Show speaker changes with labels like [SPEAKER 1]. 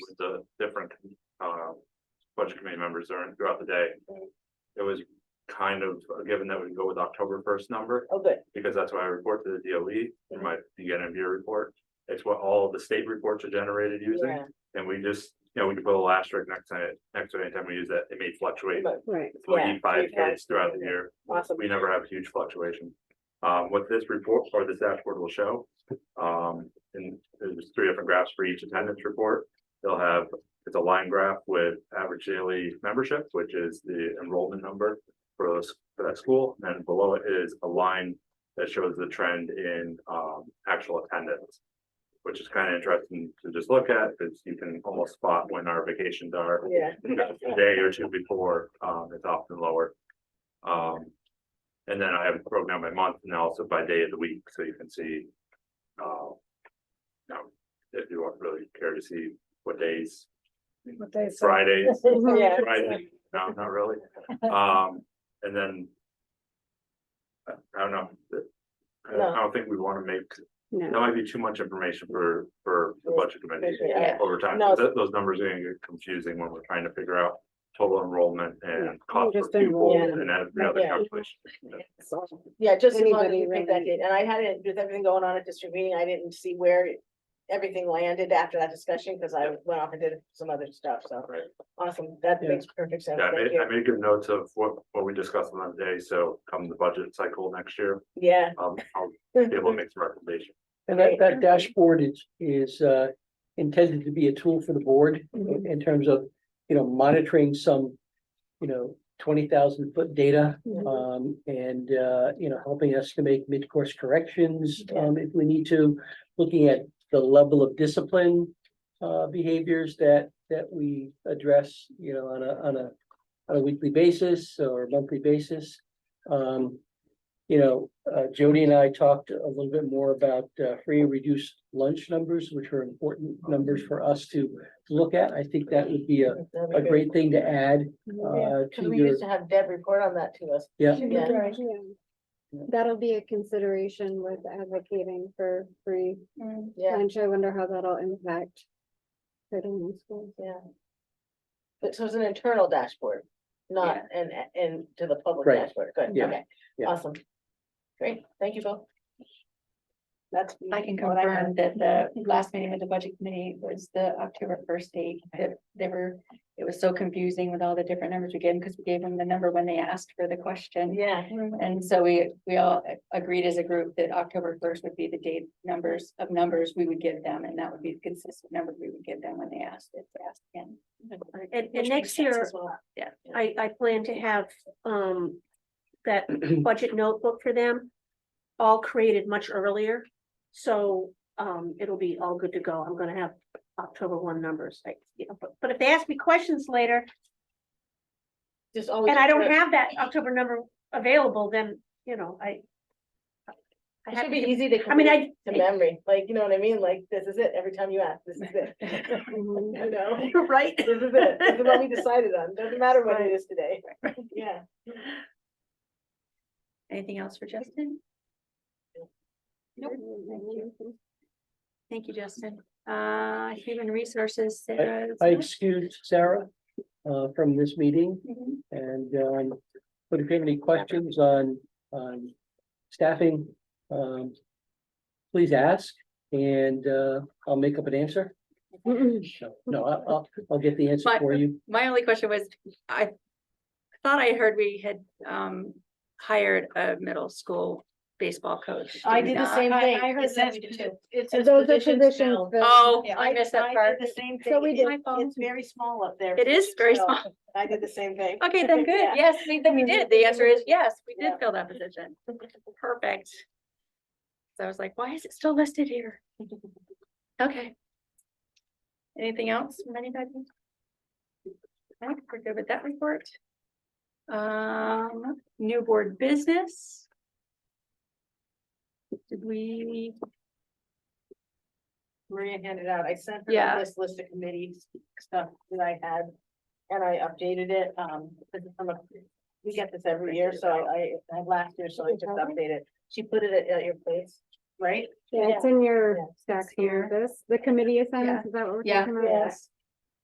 [SPEAKER 1] the different, uh, budget committee members during, throughout the day. It was kind of a given that we go with October first number,
[SPEAKER 2] Oh, good.
[SPEAKER 1] because that's what I report to the DOE, in my beginning of year report. It's what all the state reports are generated using,
[SPEAKER 2] Yeah.
[SPEAKER 1] and we just, you know, we can put a little asterisk next time, next to any time we use that, it may fluctuate.
[SPEAKER 2] But-
[SPEAKER 3] Right.
[SPEAKER 2] Yeah.
[SPEAKER 1] Forty five days throughout the
[SPEAKER 2] Yeah.
[SPEAKER 1] year.
[SPEAKER 2] Awesome.
[SPEAKER 1] We never have huge fluctuation. Um, what this report or this dashboard will show, um, and there's three different graphs for each attendance report. They'll have, it's a line graph with average daily membership, which is the enrollment number for those, for that school. And below it is a line that shows the trend in, um, actual attendance. Which is kind of interesting to just look at, because you can almost spot when our vacations are
[SPEAKER 2] Yeah.
[SPEAKER 1] a day or two before, um, it's often lower. Um, and then I have it broken down by month and also by day of the week, so you can see. Uh, you know, if you want really care to see what days,
[SPEAKER 3] What they said.
[SPEAKER 1] Fridays,
[SPEAKER 2] Yeah.
[SPEAKER 1] Friday, no, not really, um, and then. I I don't know, I don't- I don't think we wanna make, that
[SPEAKER 3] No,
[SPEAKER 1] might be too much information for, for the budget committee
[SPEAKER 2] Yeah.
[SPEAKER 1] over time,
[SPEAKER 2] No.
[SPEAKER 1] th- those numbers are gonna get confusing when we're trying to figure out total enrollment
[SPEAKER 3] Yeah.
[SPEAKER 1] and cost per
[SPEAKER 3] Just enroll-
[SPEAKER 1] pupil
[SPEAKER 2] Yeah.
[SPEAKER 1] and every other
[SPEAKER 2] Yeah.
[SPEAKER 1] calculation.
[SPEAKER 3] So,
[SPEAKER 2] Yeah, just as long as
[SPEAKER 3] Anybody
[SPEAKER 2] you pick that
[SPEAKER 3] really-
[SPEAKER 2] date, and I had it, with everything going on at district meeting, I didn't see where everything landed after that discussion, because I went off and did some other stuff, so.
[SPEAKER 1] Right.
[SPEAKER 2] Awesome, that
[SPEAKER 3] Yeah.
[SPEAKER 2] makes perfect sense,
[SPEAKER 1] Yeah, I
[SPEAKER 2] thank
[SPEAKER 1] made, I
[SPEAKER 2] you,
[SPEAKER 1] made good notes of what, what we discussed on that day, so come the budget cycle next year,
[SPEAKER 2] yeah.
[SPEAKER 1] um, I'll be able to make some recommendations.
[SPEAKER 4] And that,
[SPEAKER 2] Great.
[SPEAKER 4] that dashboard is, is, uh, intended to be a tool for the board in- in terms of, you know, monitoring some, you know, twenty thousand foot data,
[SPEAKER 2] Mhm.
[SPEAKER 4] um, and, uh, you know, helping us to make mid-course corrections,
[SPEAKER 2] Yeah.
[SPEAKER 4] um, if we need to, looking at the level of discipline, uh, behaviors that, that we address, you know, on a, on a, on a weekly basis or monthly basis. Um, you know, uh, Jody and I talked a little bit more about uh, free and reduced lunch numbers, which are important numbers for us to look at. I think that would be a,
[SPEAKER 2] That'd be
[SPEAKER 4] a
[SPEAKER 2] good.
[SPEAKER 4] great thing to add,
[SPEAKER 2] Yeah,
[SPEAKER 4] uh,
[SPEAKER 2] Because
[SPEAKER 4] to
[SPEAKER 2] we
[SPEAKER 4] your,
[SPEAKER 2] used to have Deb report on that to us,
[SPEAKER 4] yeah.
[SPEAKER 2] Yeah.
[SPEAKER 3] yeah. That'll be a consideration with advocating for free
[SPEAKER 2] yeah,
[SPEAKER 3] lunch. I wonder how that'll impact. Creighton High School.
[SPEAKER 2] yeah. But so it's an internal dashboard, not an, an to the public
[SPEAKER 4] Right.
[SPEAKER 2] dashboard, good,
[SPEAKER 4] Yeah.
[SPEAKER 2] okay,
[SPEAKER 4] Yeah.
[SPEAKER 2] awesome. Great, thank you both. That's.
[SPEAKER 5] I can
[SPEAKER 2] what I have.
[SPEAKER 5] confirm that the last meeting with the budget committee was the October first date, that they were, it was so confusing with all the different numbers we gave them, because we gave them the number when they asked for the question.
[SPEAKER 2] Yeah,
[SPEAKER 5] And so we, we all agreed as a group that October first would be the date numbers of numbers we would give them, and that would be the consistent number we would give them when they asked it, they asked again.
[SPEAKER 6] And,
[SPEAKER 5] Which
[SPEAKER 6] and
[SPEAKER 5] makes
[SPEAKER 6] next
[SPEAKER 5] sense
[SPEAKER 6] year,
[SPEAKER 5] as well.
[SPEAKER 6] I, I plan to have, um, that budget notebook for them. All created much earlier, so, um, it'll be all good to go. I'm gonna have October one numbers, like, you know, but, but if they ask me questions later.
[SPEAKER 2] just always.
[SPEAKER 6] And I don't
[SPEAKER 2] put-
[SPEAKER 6] have that October number available, then, you know, I. I
[SPEAKER 2] It
[SPEAKER 6] have
[SPEAKER 2] should be
[SPEAKER 6] to,
[SPEAKER 2] easy to.
[SPEAKER 6] I mean, I-
[SPEAKER 2] commit To memory, like, you know what I mean? Like, this is it. Every time you ask, this is it.
[SPEAKER 3] Mhm.
[SPEAKER 2] You know,
[SPEAKER 6] you're right.
[SPEAKER 2] this is it. This is what we decided on. Doesn't matter what it is today. Yeah.
[SPEAKER 5] Anything else for Justin? Nope. Thank you, Justin. Uh, human resources. Sarah, is
[SPEAKER 4] I
[SPEAKER 5] it?
[SPEAKER 4] excused Sarah, uh, from this meeting
[SPEAKER 5] Mhm.
[SPEAKER 4] and, um, but if you have any questions on, on staffing, um, please ask and, uh, I'll make up an answer. No, No, I'll, I'll, I'll get the answer
[SPEAKER 5] But-
[SPEAKER 4] for you.
[SPEAKER 5] My only question was, I thought I heard we had um hired a middle school baseball coach.
[SPEAKER 7] I
[SPEAKER 5] we
[SPEAKER 7] did the
[SPEAKER 5] not?
[SPEAKER 7] same
[SPEAKER 5] I-
[SPEAKER 7] thing.
[SPEAKER 5] I heard
[SPEAKER 7] It's
[SPEAKER 5] that
[SPEAKER 7] his-
[SPEAKER 5] too.
[SPEAKER 7] It's
[SPEAKER 3] So
[SPEAKER 7] his
[SPEAKER 3] Those are
[SPEAKER 7] positions
[SPEAKER 3] positions.
[SPEAKER 7] now.
[SPEAKER 3] filled.
[SPEAKER 5] Oh,
[SPEAKER 7] Yeah,
[SPEAKER 5] I missed that
[SPEAKER 7] I
[SPEAKER 5] part.
[SPEAKER 7] did the same
[SPEAKER 3] So we
[SPEAKER 7] thing.
[SPEAKER 3] did.
[SPEAKER 7] It- It's very small up there.
[SPEAKER 5] It is very
[SPEAKER 7] filled.
[SPEAKER 5] small.
[SPEAKER 7] I did the same thing.
[SPEAKER 5] Okay, then good.
[SPEAKER 7] Yeah.
[SPEAKER 5] Yes, we then we did. The answer is yes, we did
[SPEAKER 7] Yeah.
[SPEAKER 5] fill that position. Perfect. So I was like, why is it still listed here? Okay. Anything else from anybody? I think we're good with that report. Um, new board business. Did we,
[SPEAKER 2] Maria handed out. I sent
[SPEAKER 5] Yeah.
[SPEAKER 2] her this list of committees stuff that I had. And I updated it, um, because I'm a- we get this every year, so I, I had last year, so I just updated. She put it at, at your place, right?
[SPEAKER 3] Yeah, it's in your stack here. This, the committee assignments, is that what we're
[SPEAKER 5] Yeah.
[SPEAKER 3] talking about?
[SPEAKER 2] Yes.